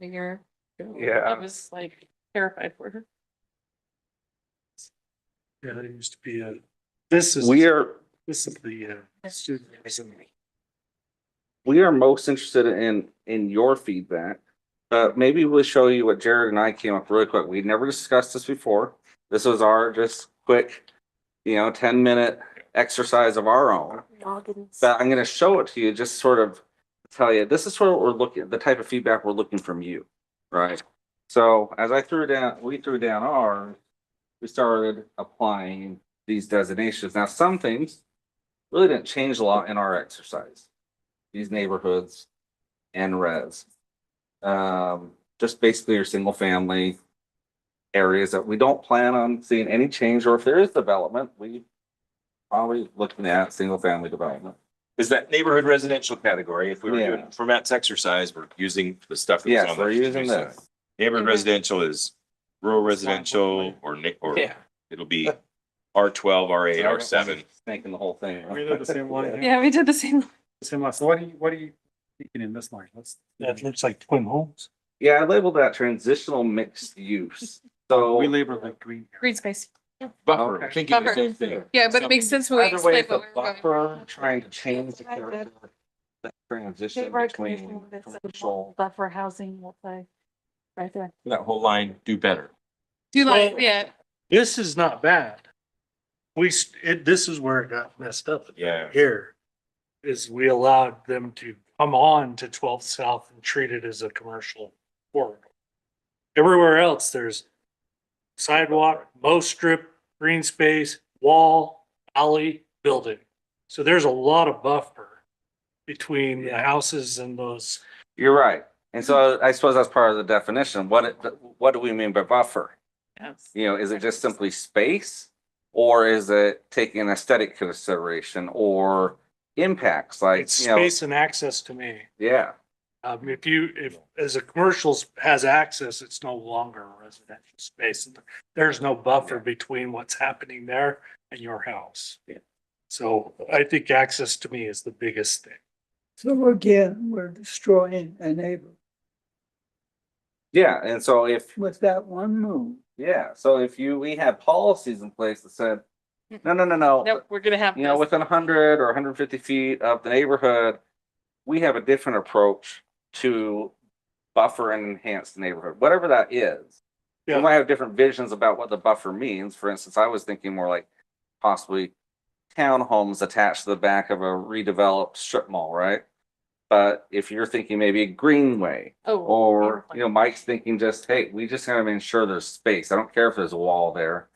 figure. I Yeah, was like terrified for her. Yeah, there used to be a, this is, we are, this is the, uh, student. housing. we are most interested in, in your feedback. Uh, maybe we'll show you what Jared and I came up really quick. We never discussed this before. This was our just quick, you know, ten minute exercise of our own. But I'm gonna show it to you, just sort of tell you, this is sort of what we're looking, the type of feedback we're looking from you, right? So as I threw down, we threw down ours, we started applying these designations. Now, some things really didn't change a lot in our exercise. These neighborhoods and res. Um, just basically your single family areas that we don't plan on seeing any change, or if there is development, we probably looking at single family development. Is that neighborhood residential category? If we were Yeah. doing, for Matt's exercise, we're using the stuff. that was Yes, on we're the- using this. Neighborhood residential is rural residential or ni- or it'll be R twelve, R eight, R seven. Making the whole thing. We did the same line here. Yeah, we did the same. Same line. So what do you, what do you thinking in this line? Let's. That looks like twin homes. Yeah, I labeled that transitional mixed use. We So, labor like green. here. Green space. Buffer, Okay. thinking the same thing. Yeah, but it makes sense when we either explain way, it's what a we were going. buffer, trying to change the character. That transition Favor between commission that's a commercial, Buffer housing will play right there. That whole line, do better. Do you like, yeah, This is not bad. We, s- it, this is where it got messed up. Yeah. Here is we allowed them to come on to twelfth south and treat it as a commercial corridor. Everywhere else, there's sidewalk, mow strip, green space, wall, alley, building. So there's a lot of buffer between the houses and those. you're right. And so I suppose that's part of the definition. What, it- what do we mean by buffer? yes. You know, is it just simply space? Or is it taking an aesthetic consideration or impacts like, It's you know, space and access to me. yeah, Um, if you, if, as a commercials has access, it's no longer a residential space. There's no buffer between what's happening there and your house. Yeah. So I think access to me is the biggest thing. So again, we're destroying a neighbor yeah. And so if with that one move. Yeah, so if you, we had policies in place that said, no, no, no, no, Nope, we're gonna have. you know, this. within hundred or hundred fifty feet of the neighborhood, we have a different approach to buffer and enhance the neighborhood, whatever that is. We Yeah. might have different visions about what the buffer means. For instance, I was thinking more like possibly townhomes attached to the back of a redeveloped strip mall, right? But if you're thinking maybe a greenway, Oh, or, you know, Mike's thinking just, hey, we just gotta ensure there's space. I don't care if there's a wall there.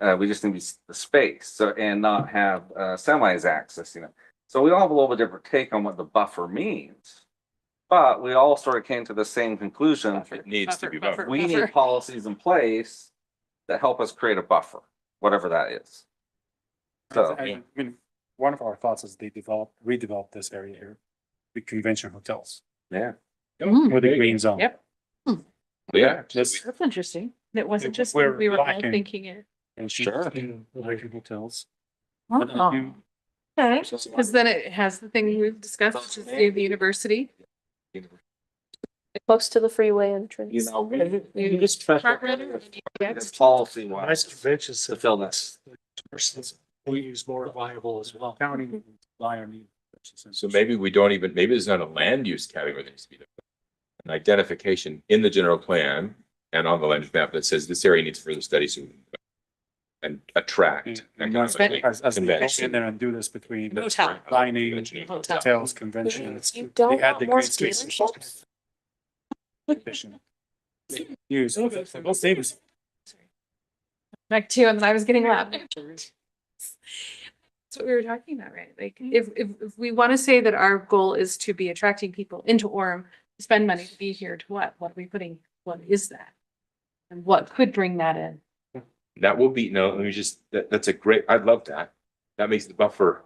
Uh, we just need s- the space, so, and not have, uh, semis accessing it. So we all have a little bit different take on what the buffer means. But we all sort of came to the same conclusion. Buffer, needs to be buffered. We buffer. need policies in place that help us create a buffer, whatever that is. So, I I mean, one of our thoughts is they developed, redeveloped this area here, the convention hotels yeah, Mm-hmm. Mm, with the green zone. Yep. Yeah. This, That's interesting. It wasn't It- just, we're we were all lacking. thinking it. and Sure. Like hotels. But if Oh, you- Okay, because then it has the thing we've discussed, which is the the university. Close to the freeway entrance. you know. You just Front runner, next. Policy Nice wise, conventions. to fill this. We use more viable as well. County, rely on you. So maybe we don't even, maybe there's not a land use category that needs to be. done. An identification in the general plan and on the land use map that says this area needs further studies and- and Mm. attract. And not economically As, as they go convention. in there and do this between the Hotel. dining, Hotel. hotels, conventions. You They don't had want the more green space. dealerships? Condition. Use. Well, save us. Like two, and then I was getting loud. That's what we were talking about, right? Like, if, if, if we want to say that our goal is to be attracting people into Orem, to spend money to be here, to what? What are we putting? What is that? And what could bring that in? That will be, no, let me just, that, that's a great, I love that. That makes the buffer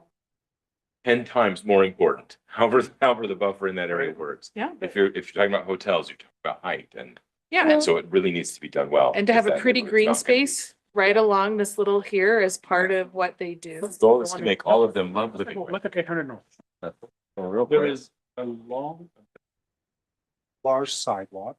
ten times more important, however, however the buffer in that area works. Yeah. If you're, if you're talking about hotels, you're talking about height and, Yeah, and so it really needs to be done well. and to have because a that pretty neighborhood's green not gonna be- space right along this little here as part of what they do. The Goal is to make all of them love living. Look at eight hundred north. Real quick. There is a long, large sidewalk